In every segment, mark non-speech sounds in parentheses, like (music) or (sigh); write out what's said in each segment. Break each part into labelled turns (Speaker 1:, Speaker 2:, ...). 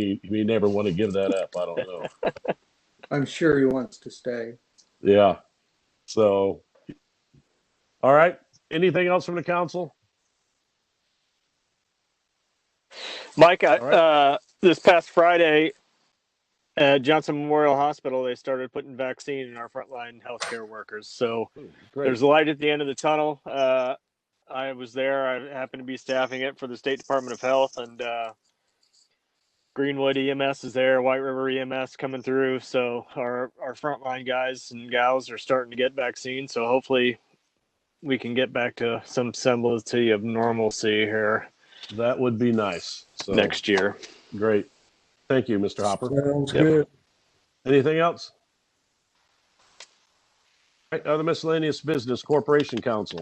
Speaker 1: He, he never want to give that up. I don't know.
Speaker 2: I'm sure he wants to stay.
Speaker 1: Yeah. So, all right. Anything else from the council?
Speaker 3: Mike, I,
Speaker 1: All right.
Speaker 3: uh, this past Friday at Johnson Memorial Hospital, they started putting vaccine in our frontline healthcare workers. So there's a light at the end of the tunnel. Uh, I was there. I happened to be staffing it for the State Department of Health and uh, Greenwood EMS is there. White River EMS coming through. So our our frontline guys and gals are starting to get vaccines. So hopefully we can get back to some semblance of normalcy here
Speaker 1: That would be nice. So,
Speaker 3: next year.
Speaker 1: Great. Thank you, Mr. Hopper.
Speaker 4: Sounds
Speaker 3: Yep.
Speaker 4: good.
Speaker 1: Anything else? All right, Other miscellaneous business, Corporation Council,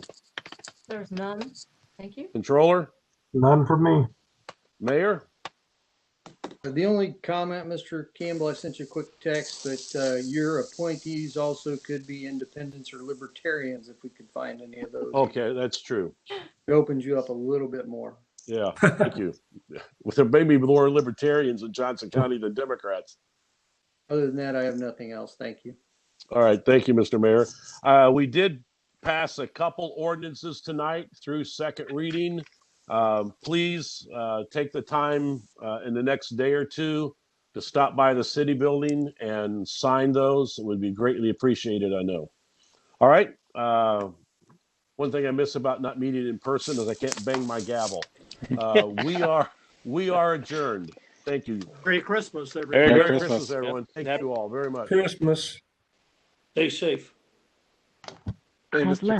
Speaker 5: There's none. Thank you.
Speaker 1: Controller,
Speaker 4: None for me.
Speaker 1: Mayor.
Speaker 2: The only comment, Mr. Campbell, I sent you a quick text, but uh, your appointees also could be independents or libertarians if we could find any of those.
Speaker 1: Okay, that's true.
Speaker 2: It opens you up a little bit more.
Speaker 1: Yeah, thank you. (laughs) With there may be more libertarians in Johnson County than Democrats.
Speaker 2: Other than that, I have nothing else. Thank you.
Speaker 1: All right, thank you, Mr. Mayor. Uh, we did pass a couple ordinances tonight through second reading. Um, please, uh, take the time, uh, in the next day or two to stop by the city building and sign those. It would be greatly appreciated, I know. All right, uh, one thing I miss about not meeting in person is I can't bang my gavel. Uh, we are, we are adjourned. Thank you.
Speaker 6: Merry Christmas,
Speaker 3: Merry
Speaker 6: everybody.
Speaker 1: Merry
Speaker 3: Christmas.
Speaker 1: Christmas,
Speaker 3: Yep.
Speaker 1: everyone. Thank
Speaker 3: Yep.
Speaker 1: you all very much.
Speaker 4: Christmas.
Speaker 6: Stay safe.
Speaker 1: Hey, Mr.